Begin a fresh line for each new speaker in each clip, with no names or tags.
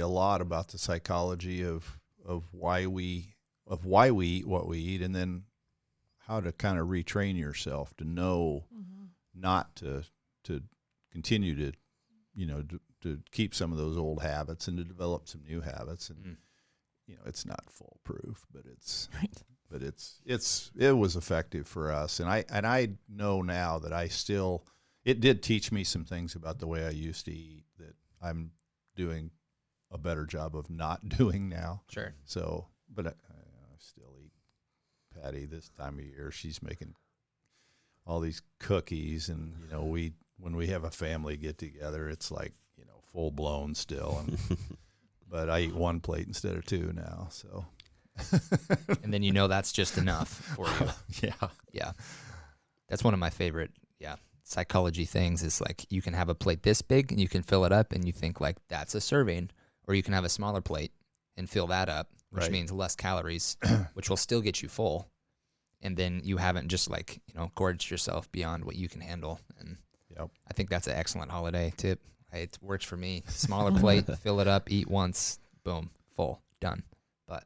a lot about the psychology of of why we of why we eat what we eat, and then how to kind of retrain yourself to know not to to continue to you know to, to keep some of those old habits and to develop some new habits and
Mm.
you know it's not foolproof but it's
Right.
but it's it's it was effective for us and i and i know now that i still it did teach me some things about the way i used to eat that i'm doing a better job of not doing now
Sure.
so but i, I still eat patty this time of year she's making all these cookies and you know we when we have a family get together it's like you know full blown still and but i eat one plate instead of two now so
And then you know that's just enough for you.
yeah
Yeah. That's one of my favorite, yeah, psychology things is like you can have a plate this big and you can fill it up and you think like that's a serving or you can have a smaller plate and fill that up, which
Right.
means less calories, which will still get you full. And then you haven't just like, you know, gorged yourself beyond what you can handle. And
Yep.
I think that's an excellent holiday tip. It works for me. Smaller plate, fill it up, eat once, boom, full, done. But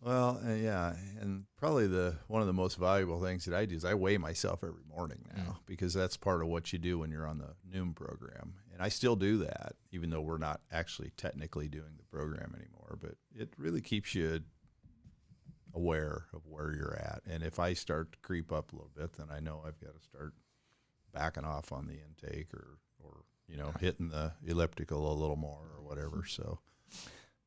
Well, uh, yeah, and probably the one of the most valuable things that I do is I weigh myself every morning now because that's part of what you do when you're on the Noom program, and I still do that even though we're not actually technically doing the program anymore. But it really keeps you aware of where you're at, and if I start to creep up a little bit, then I know I've got to start backing off on the intake or or you know hitting the elliptical a little more or whatever. So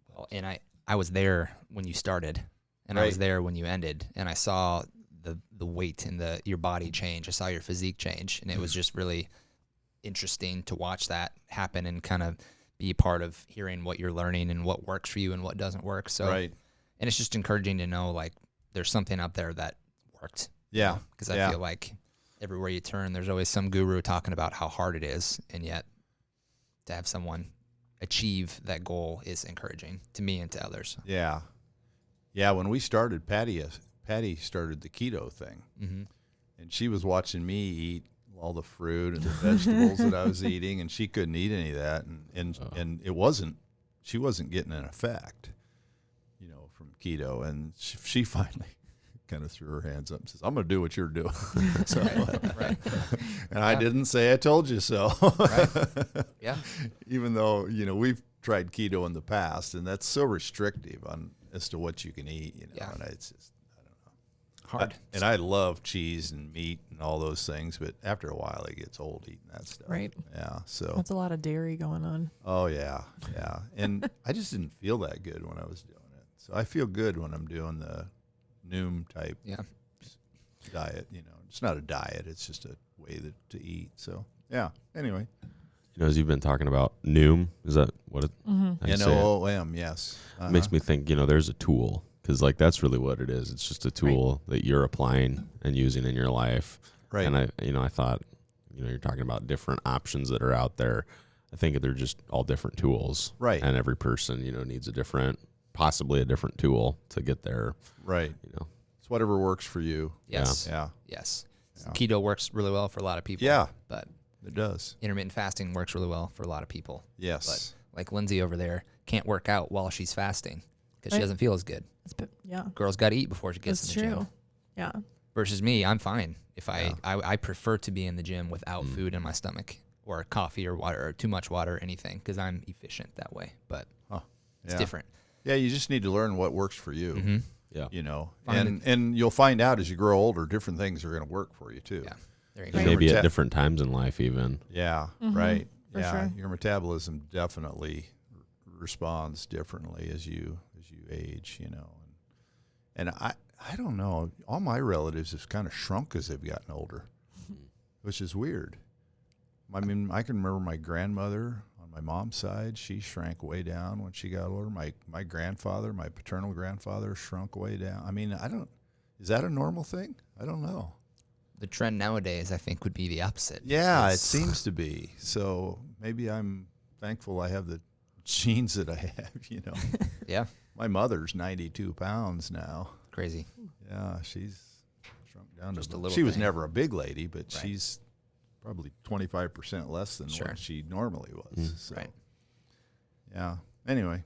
Well, Oh, and I, I was there when you started, and I was
Right.
there when you ended, and I saw the the weight and the your body change. I saw your physique change, and it was just really interesting to watch that happen and kind of be a part of hearing what you're learning and what works for you and what doesn't work. So,
right,
and it's just encouraging to know like there's something out there that worked
yeah,
because I
Yeah.
feel like everywhere you turn, there's always some guru talking about how hard it is, and yet to have someone achieve that goal is encouraging to me and to others.
Yeah, yeah. When we started, Patty uh, Patty started the keto thing,
hmm
and she was watching me eat all the fruit and the vegetables that I was eating, and she couldn't eat any of that, and and
Oh.
and it wasn't she wasn't getting an effect, you know, from keto, and she, she finally. Kind of threw her hands up and says, "I'm going to do what you're doing," so,
right.
and I didn't say I told you so.
Yeah.
even though you know we've tried keto in the past, and that's so restrictive on as to what you can eat. You know,
Yeah.
and it's just
Hard.
and I love cheese and meat and all those things, but after a while it gets old eating that stuff.
Right.
Yeah. So
That's a lot of dairy going on.
oh yeah, yeah. And I just didn't feel that good when I was doing it. So I feel good when I'm doing the Noom type
yeah.
diet. You know, it's not a diet; it's just a way that, to eat. So yeah. Anyway,
You know, as you've been talking about Noom, is that what it how you
N
say it?
O O M. Yes. Uh-huh.
makes me think you know there's a tool because like that's really what it is it's just a tool that you're applying and using in your life
Uh-huh. Right.
and i you know i thought you know you're talking about different options that are out there i think they're just all different tools
Right.
and every person you know needs a different possibly a different tool to get there
right.
you know
It's whatever works for you.
Yes.
Yeah.
Yes. Keto works really well for a lot of people.
Yeah.
But
It does.
intermittent fasting works really well for a lot of people.
Yes.
Like Lindsay over there can't work out while she's fasting because she
Right.
doesn't feel as good.
It's been, yeah,
Girls got to eat before she gets
that's
in the
true.
gym.
Yeah,
versus me, I'm fine. If I, I, I prefer to be in the gym without
Mm.
food in my stomach or coffee or water or too much water or anything because I'm efficient that way. But it's
yeah.
different.
Yeah, you just need to learn what works for you.
yeah
You know,
Find
and and you'll find out as you grow older, different things are going to work for you too.
Yeah. There you
And
go.
Right.
maybe
Never
at
ta-
different times in life even
Yeah, right.
Mm-hmm. for
yeah,
sure.
your metabolism definitely r- responds differently as you as you age. You know, and and I I don't know. All my relatives have kind of shrunk as they've gotten older, which is weird. I mean, I can remember my grandmother on my mom's side. She shrank way down when she got older. My my grandfather, my paternal grandfather, shrunk way down. I mean, I don't. Is that a normal thing? I don't know.
The trend nowadays, I think, would be the opposite.
Yeah, it
It's-
seems to be. So maybe I'm thankful I have the genes that I have, you know.
yeah,
My mother's 92 pounds now.
crazy.
Yeah, she's shrunk down
Just
to
a little
She was
thing.
never a big lady, but
Right.
she's probably 25% less than
Sure. Mm.
what she normally was. So,
Right.
Yeah. Anyway,